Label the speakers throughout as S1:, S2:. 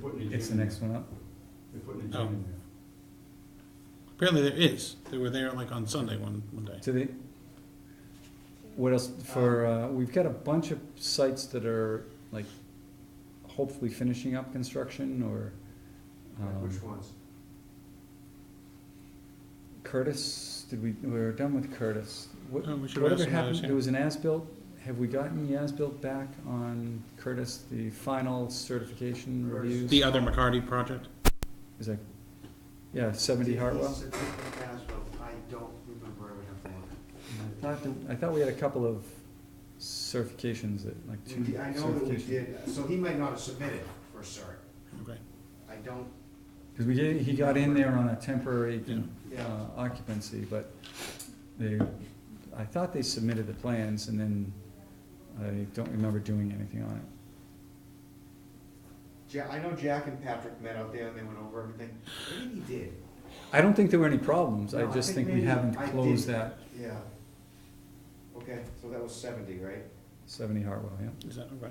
S1: putting a gym.
S2: It's the next one up.
S1: They're putting a
S3: Oh.
S1: gym in there.
S3: Apparently there is. They were there like on Sunday one, one day.
S2: Do they, what else, for, uh, we've got a bunch of sites that are like hopefully finishing up construction or, um,
S1: Which ones?
S2: Curtis, did we, we were done with Curtis. What-
S3: Oh, we should
S2: whatever
S3: ask him about
S2: happened-
S3: his-
S2: There was an as-built, have we gotten the as-built back on Curtis, the final certification
S1: Curtis.
S2: reviews?
S3: The other McCarty project?
S2: Is that, yeah, seventy Hartwell?
S4: It's a different Hasbro. I don't remember ever having one.
S2: I thought, that- I thought we had a couple of certifications that, like two
S4: We- I know that we
S2: certifications.
S4: did, so he might not have submitted for cert.
S3: Okay.
S4: I don't,
S2: Because we did, he got in there on a temporary
S3: Yeah.
S4: Yeah.
S2: uh, occupancy, but they, I thought they submitted the plans and then I don't remember doing anything on it.
S4: Ja, I know Jack and Patrick met out there and they went over everything. Maybe he did,
S2: I don't think there were any problems, I
S4: No, I
S2: just
S4: think
S2: think we
S4: maybe
S2: haven't
S4: I
S2: closed
S4: did.
S2: that
S4: yeah. Okay, so that was seventy, right?
S2: seventy Hartwell, yeah.
S3: Is that okay?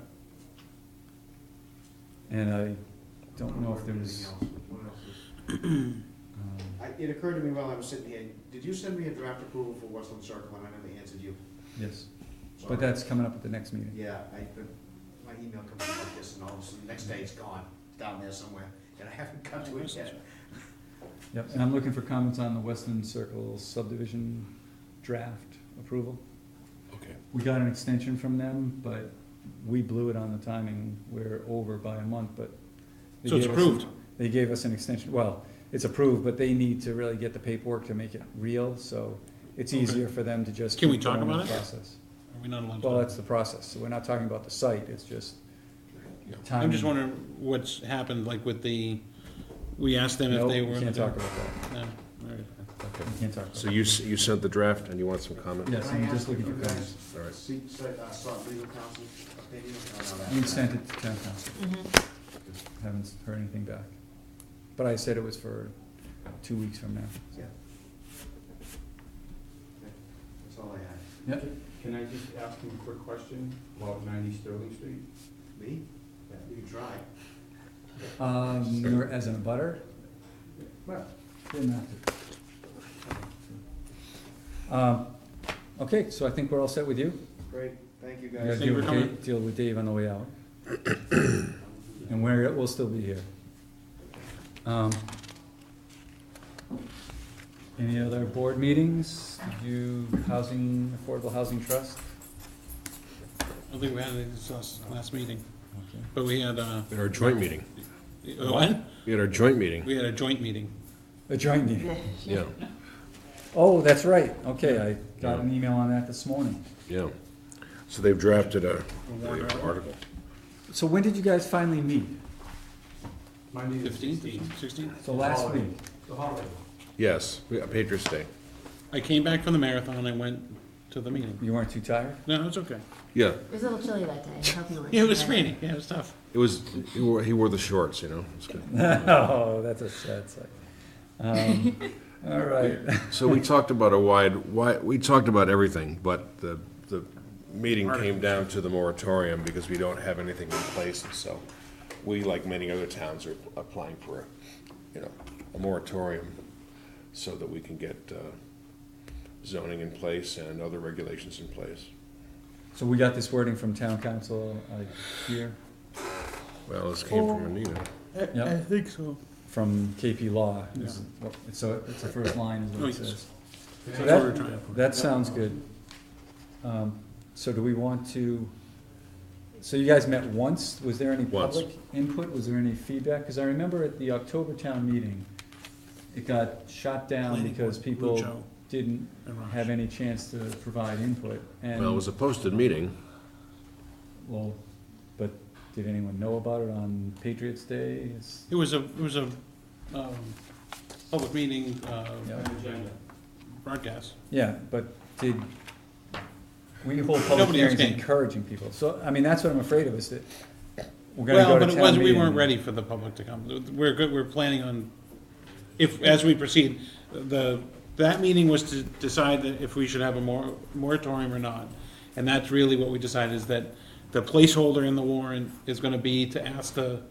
S2: And I don't know if
S4: remember
S2: there's,
S4: anything else. What else was-
S2: um,
S4: I, it occurred to me while I was sitting here, did you send me a draft approval for Westland Circle and I never answered you?
S2: yes,
S4: Sorry.
S2: but that's coming up at the next meeting.
S4: Yeah, I, but my email comes in like this and all of a sudden, the next day it's gone, It's down there somewhere, and I haven't got to it yet.
S2: Yep, and I'm looking for comments on the Westland Circle subdivision draft approval.
S3: Okay.
S2: We got an extension from them, but we blew it on the timing, we're over by a month, but. they
S3: So it's
S2: gave us-
S3: approved.
S2: They gave us an extension, well, it's approved, but they need to really get the paperwork to make it real, so it's
S3: Okay.
S2: easier for them to just.
S3: Can we
S2: keep
S3: talk
S2: going with
S3: about
S2: the
S3: it?
S2: Process.
S3: Are we not allowed to?
S2: Well, that's the process, so we're not talking about the site, it's just timing.
S3: I'm just wondering what's happened, like with the, we asked them if
S2: Nope,
S3: they
S2: we
S3: were.
S2: can't talk about that,
S3: No, all right.
S5: Okay.
S2: we can't talk about
S5: So
S2: that.
S5: you, s- you sent the draft and you want some comment?
S2: Yes,
S4: Can I
S2: I'm just
S4: ask
S2: looking
S4: you
S2: for
S4: guys
S2: comments.
S5: All right.
S4: See, so, uh, sought legal counsel opinion on that?
S2: You sent it to town council. Haven't heard anything back. But I said it was for two weeks from now.
S4: Yeah. Okay, That's all I
S2: Yep.
S1: Can I just ask you a quick question about ninety Sterling Street?
S4: had. Me? You can try.
S2: Um,
S5: Sorry.
S2: you're as in a butter?
S1: Well,
S2: Didn't have to. Um, okay, so I think we're all set with you.
S4: Great, thank you
S2: You gotta
S4: guys.
S3: Thank
S2: deal
S3: you for
S2: with
S3: coming.
S2: Dave, deal with Dave on the way out. And we're, we'll still be here. Um, Any other board meetings? Did You, housing, Affordable Housing Trust?
S3: I don't think we had it this last, last meeting,
S2: Okay.
S3: but we had, uh,
S5: At our joint meeting.
S3: what?
S5: We had our joint meeting,
S3: We had a joint meeting.
S2: A joint meeting.
S5: yeah,
S2: Oh, that's right. Okay, I got an email on that this morning.
S5: yeah. So they've drafted a
S3: warrant
S5: a article.
S2: So when did you guys finally meet?
S1: Monday the
S3: Fifteenth,
S1: sixteenth.
S3: sixteenth?
S2: So last
S3: Oh.
S1: Holiday.
S2: week?
S1: The holiday.
S5: Yes, we- Patriots Day.
S3: I came back from the marathon, I went to the meeting.
S2: You weren't too tired?
S3: No, it's okay.
S5: Yeah,
S6: It was a little chilly that day. I hope you weren't
S3: Yeah, it was
S6: tired.
S3: raining, yeah, it was tough.
S5: it was, he wore, he wore the shorts, you know? It's good.
S2: Oh, that's a sad sight. Um, All right.
S5: So we talked about a wide, wide, we talked about everything, but the, the meeting came down to the moratorium because we don't have anything in place, so we, like many other towns, are applying for, a you know, a moratorium so that we can get uh, zoning in place and other regulations in place.
S2: So we got this wording from town council uh, here,
S5: Well, this came from Anita.
S2: I
S3: think so.
S2: from KP Law. It's- So it's the first line is what it
S3: Oh, yes.
S2: says.
S1: Can I ask-
S2: So
S3: That's what we're trying
S2: that, that sounds good. Um, So do we want to, so you guys met once, was there any
S5: Once.
S2: public input, was there any feedback? Cause I remember at the October town meeting, it got shot down
S3: Planning
S2: because
S3: board,
S2: people
S3: Lujo,
S2: didn't
S3: and Raj.
S2: have any chance to provide input.
S5: Well, it was
S2: And,
S5: a posted meeting.
S2: well, but did anyone know about it on Patriots Day? It's-
S3: It was a, it was a, um, public meeting, uh,
S2: Yeah,
S1: An agenda.
S3: broadcast.
S2: Yeah, but did, we hold public
S3: Nobody else
S2: hearings
S3: came.
S2: encouraging people, so, I mean, that's what I'm afraid of, is that we're gonna
S3: Well,
S2: go to
S3: but
S2: town
S3: it
S2: meeting.
S3: was, we weren't ready for the public to come. We're good, we're planning on, if, as we proceed, the, that meeting was to decide that if we should have a mor- moratorium or not. And that's really what we decided is that the placeholder in the warrant is gonna be to ask the